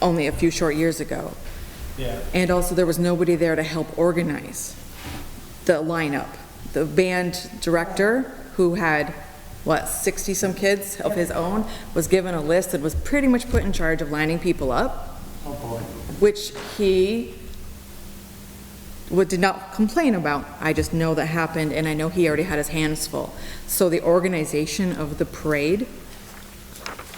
only a few short years ago. Yeah. And also, there was nobody there to help organize the lineup. The band director, who had, what, 60-some kids of his own, was given a list and was pretty much put in charge of lining people up, Oh, boy. which he would, did not complain about. I just know that happened, and I know he already had his hands full. So the organization of the parade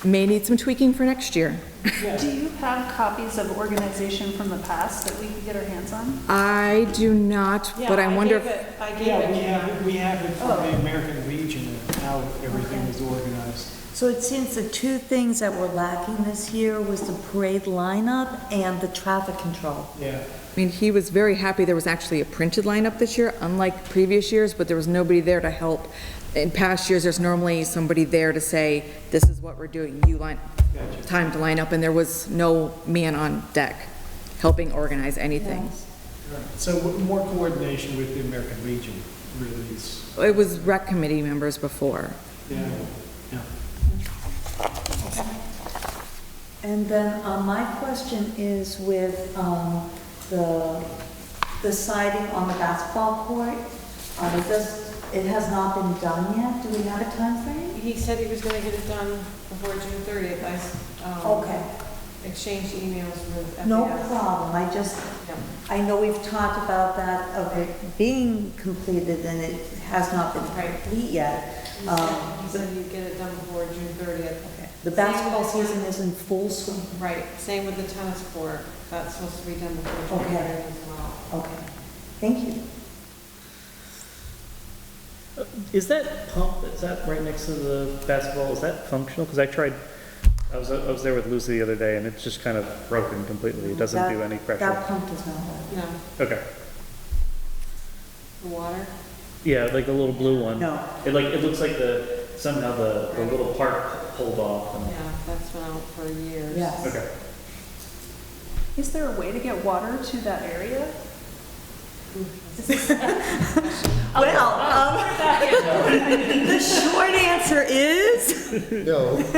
may need some tweaking for next year. Do you have copies of organization from the past that we could get our hands on? I do not, but I wonder if... I gave Yeah, we it. have, we have it from the American Legion and how everything was organized. So it seems the two things that were lacking this year was the parade lineup and the traffic control. Yeah. I mean, he was very happy there was actually a printed lineup this year, unlike previous years, but there was nobody there to help. In past years, there's normally somebody there to say, this is what we're doing, you line, Gotcha. time to line up, and there was no man on deck helping organize anything. Right. So w- more coordination with the American Legion really is, It was rec committee members before. yeah, yeah. And then, uh, my question is with, um, the, the siding on the basketball court. Uh, it does, it has not been done yet. Do we have a timeframe? He said he was gonna get it done before June thirtieth, I, s- um, Okay, exchanged emails with FAS. no problem. I just, No. I know we've talked about that of it being completed and it has not been Right. complete yet. He Um, said- He said he'd get it done before June thirtieth. The Same basketball with the season is in full swing. Right, same with the tennis court, that's supposed to be done before June Okay. thirtieth as well. Okay, thank you. Is that pump, is that right next to the basketball, is that functional? Because I tried, I was, I was there with Lucy the other day and it's just kind of broken completely. It doesn't do That- any pressure. That pump does not work. No, Okay. the water, Yeah, like the little blue one. No. It like, it looks like the, somehow the, the little part pulled off. and- yeah, that's been out for years. Yes. Okay. Is there a way to get water to that area? Well, um, the short answer is, No,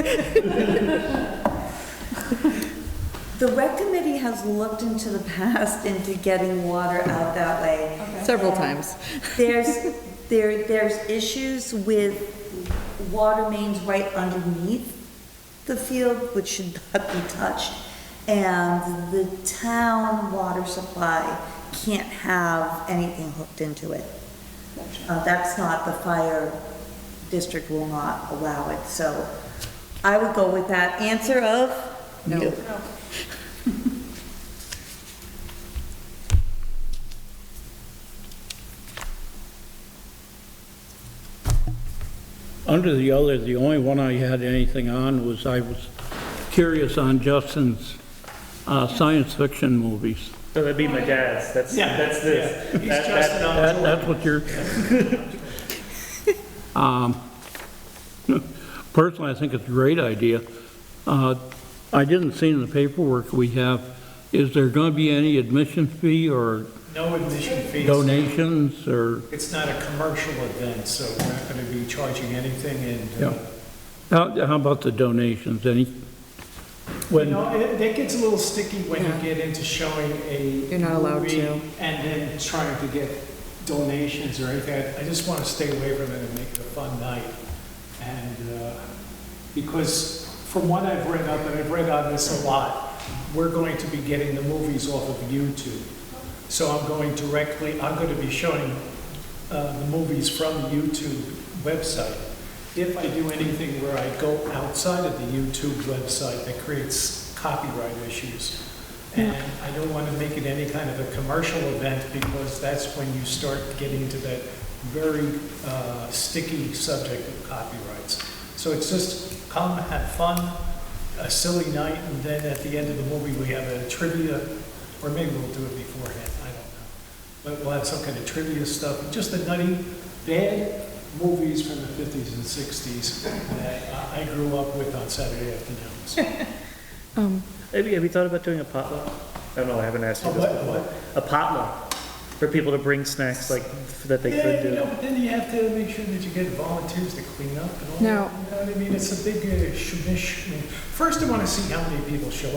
the rec committee has looked into the past into getting water out that way. Several times. There's, there, there's issues with water mains right underneath the field, which should not be touched. And the town water supply can't have anything hooked into it. Uh, that's not, the fire district will not allow it, so I would go with that answer of No. no. Under the other, the only one I had anything on was I was curious on Justin's uh, science fiction movies. So that'd be my dad's, that's, Yeah, that's this. yeah. He's That- just that- an That- That's what you're... Um, Personally, I think it's a great idea. Uh, I didn't see in the paperwork we have, is there going to be any admission fee or No admission fees. donations or... It's not a commercial event, so we're not going to be charging anything and, uh, Yeah. How how about the donations, any? You When- know, it, that gets a little sticky when you get into showing a. You're not allowed movie to. And then trying to get donations or anything. I- I just want to stay away from it and make it a fun night. And, uh, because from what I've read up, and I've read on this a lot, we're going to be getting the movies off of YouTube. So I'm going directly, I'm going to be showing, uh, the movies from the YouTube website. If I do anything where I go outside of the YouTube website, that creates copyright issues. And I don't want to make it any kind of a commercial event because that's when you start getting into that very uh, sticky subject of copyrights. So it's just come, have fun, a silly night, and then at the end of the movie, we have a trivia, or maybe we'll do it beforehand, I don't know. But we'll have some kind of trivia stuff, just the nutty, bad movies from the 50s and 60s that I- I grew up with on Saturday afternoons. Um, Have you, have you thought about doing a potluck? I don't know, I haven't asked A you this what, before. what? A potluck, for people to bring snacks like, that they Yeah, could you know, do. but then you have to make sure that you get volunteers to clean up and all that. No. You know what I mean? It's a big uh, shmish. First, I want to see how many people show